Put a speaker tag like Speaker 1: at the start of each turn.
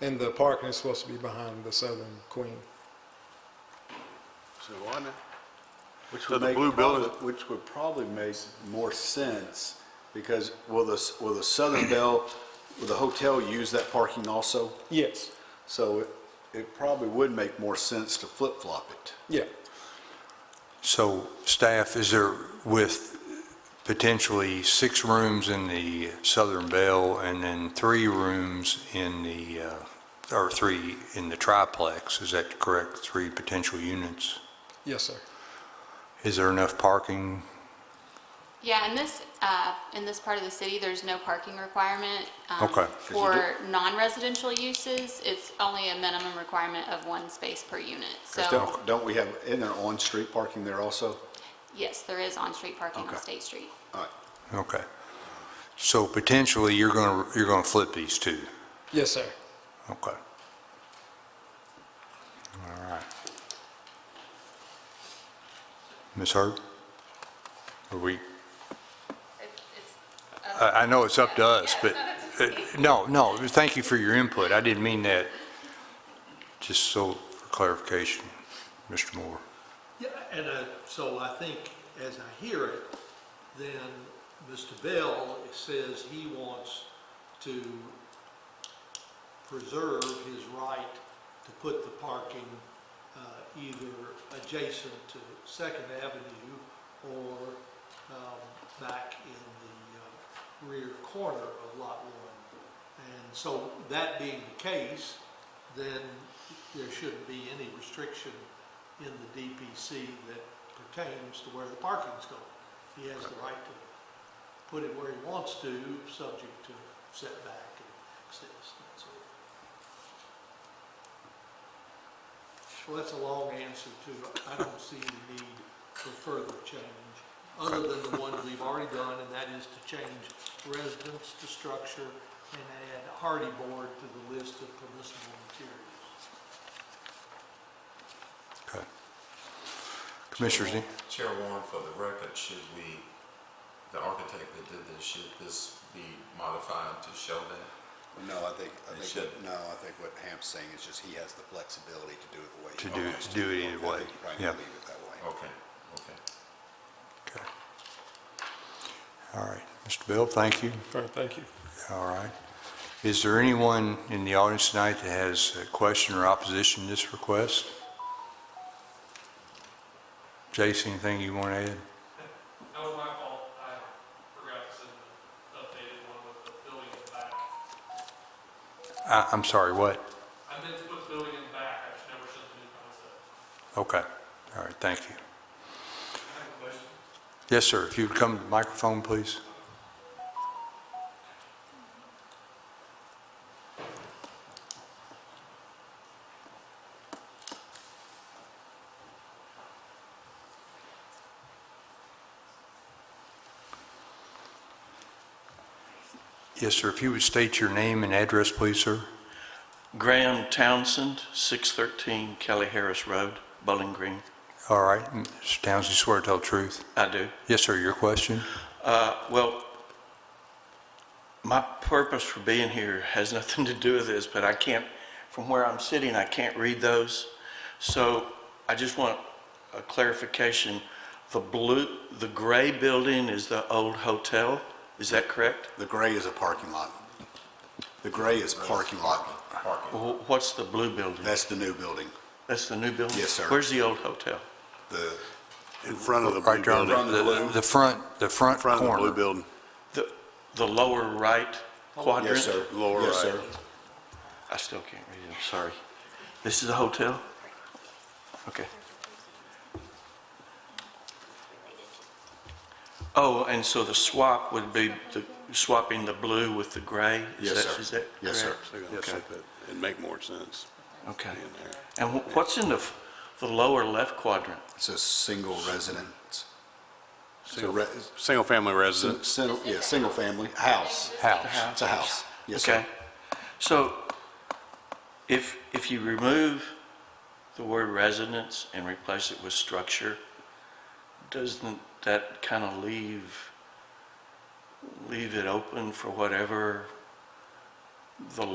Speaker 1: And the parking is supposed to be behind the Southern Queen.
Speaker 2: So why not?
Speaker 3: Which
Speaker 2: So
Speaker 3: would
Speaker 2: the
Speaker 3: make
Speaker 2: blue
Speaker 3: probably-
Speaker 2: building-
Speaker 3: Which would probably make more sense, because will the, will the Southern Bell, will the hotel use that parking also?
Speaker 1: Yes,
Speaker 3: So it, it probably would make more sense to flip-flop it.
Speaker 1: yeah.
Speaker 4: So staff, is there with potentially six rooms in the Southern Bell and then three rooms in the, uh, or three in the triplex, is that correct? Three potential units?
Speaker 1: Yes, sir.
Speaker 4: Is there enough parking?
Speaker 5: Yeah, in this, uh, in this part of the city, there's no parking requirement. um,
Speaker 4: Okay. 'Cause
Speaker 3: you
Speaker 5: For non-residential uses, it's only a minimum requirement of one space per unit.
Speaker 3: 'Cause
Speaker 5: So,
Speaker 3: don't, don't we have, in there on-street parking there also?
Speaker 5: yes, there is on-street parking on
Speaker 3: Okay.
Speaker 5: State Street.
Speaker 3: All right,
Speaker 4: Okay. So potentially, you're going to, you're going to flip these two?
Speaker 1: Yes, sir.
Speaker 4: Okay. All right. Ms. Hurd? Are we? I, I know it's up to us, but, uh, no, no, thank you for your input. I didn't mean that, just so for clarification, Mr. Moore.
Speaker 6: Yeah, and uh, so I think, as I hear it, then Mr. Bell says he wants to preserve his right to put the parking uh, either adjacent to Second Avenue or um, back in the uh, rear corner of Lot One. And so, that being the case, then there shouldn't be any restriction in the DPC that pertains to where the parking's going. He has the right to put it where he wants to, subject to setback and access and so on. Well, that's a long answer to, I don't see the need for further change, other than the one we've already done, and that is to change residence to structure and add hardy board to the list of permissible materials.
Speaker 4: Okay. Commissioners, any-
Speaker 7: Chair Warren, for the record, should we, the architect that did this, should this be modified to show that?
Speaker 3: no, I think, I
Speaker 7: It
Speaker 3: think,
Speaker 7: should.
Speaker 3: that- no, I think what Hamp's saying is just he has the flexibility to do it the way
Speaker 4: To
Speaker 3: he
Speaker 4: do-
Speaker 3: wants.
Speaker 4: to do it either
Speaker 3: I think
Speaker 4: way,
Speaker 3: you probably
Speaker 4: yeah.
Speaker 3: leave it that way.
Speaker 7: Okay, okay.
Speaker 4: okay. All right, Mr. Bill, thank you.
Speaker 1: All right, thank you.
Speaker 4: All right. Is there anyone in the audience tonight that has a question or opposition to this request? Jason, anything you want to add?
Speaker 8: That was my fault. I forgot to send the updated one with the building in the back.
Speaker 4: I, I'm sorry, what?
Speaker 8: I meant to put the building in the back. I just never sent the new concept.
Speaker 4: Okay, all right, thank you.
Speaker 8: I have a question.
Speaker 4: Yes, sir, if you would come to the microphone, please. Yes, sir, if you would state your name and address, please, sir.
Speaker 9: Graham Townsend, 613 Kelly Harris Road, Bowling Green.
Speaker 4: All right, Mr. Townsend, you swear to tell the truth?
Speaker 9: I do.
Speaker 4: Yes, sir, your question?
Speaker 9: Uh, Well, my purpose for being here has nothing to do with this, but I can't, from where I'm sitting, I can't read those. So I just want a clarification. The blue, the gray building is the old hotel, is that correct?
Speaker 3: The gray is a parking lot. The gray is parking lot.
Speaker 7: Parking.
Speaker 9: Wh- What's the blue building?
Speaker 3: That's the new building,
Speaker 9: That's the new building?
Speaker 3: Yes, sir.
Speaker 9: Where's the old hotel?
Speaker 3: the, in front of the
Speaker 4: Right there on
Speaker 3: In front of the
Speaker 4: the, the front, the front corner.
Speaker 3: front of the blue building.
Speaker 9: The the lower right quadrant?
Speaker 3: Yes, sir. Lower
Speaker 2: Yes,
Speaker 3: right.
Speaker 2: sir.
Speaker 9: I still can't read it, I'm sorry. This is a hotel? Okay. Oh, and so the swap would be the- swapping the blue with the gray? Is
Speaker 3: Yes,
Speaker 9: that-
Speaker 3: sir.
Speaker 9: Is that correct?
Speaker 3: Yes, sir.
Speaker 2: Yes,
Speaker 9: Okay.
Speaker 2: sir, but it'd make more sense.
Speaker 9: Okay.
Speaker 2: in there.
Speaker 9: And wh- what's in the f- the lower left quadrant?
Speaker 3: It's a single residence. It's a re- it's
Speaker 2: Single-family
Speaker 3: a
Speaker 2: residence,
Speaker 3: sin- yeah, single family, house.
Speaker 4: House.
Speaker 3: It's a house. Yes, sir.
Speaker 9: Okay. So if, if you remove the word residence and replace it with structure, doesn't that kind of leave, leave it open for whatever the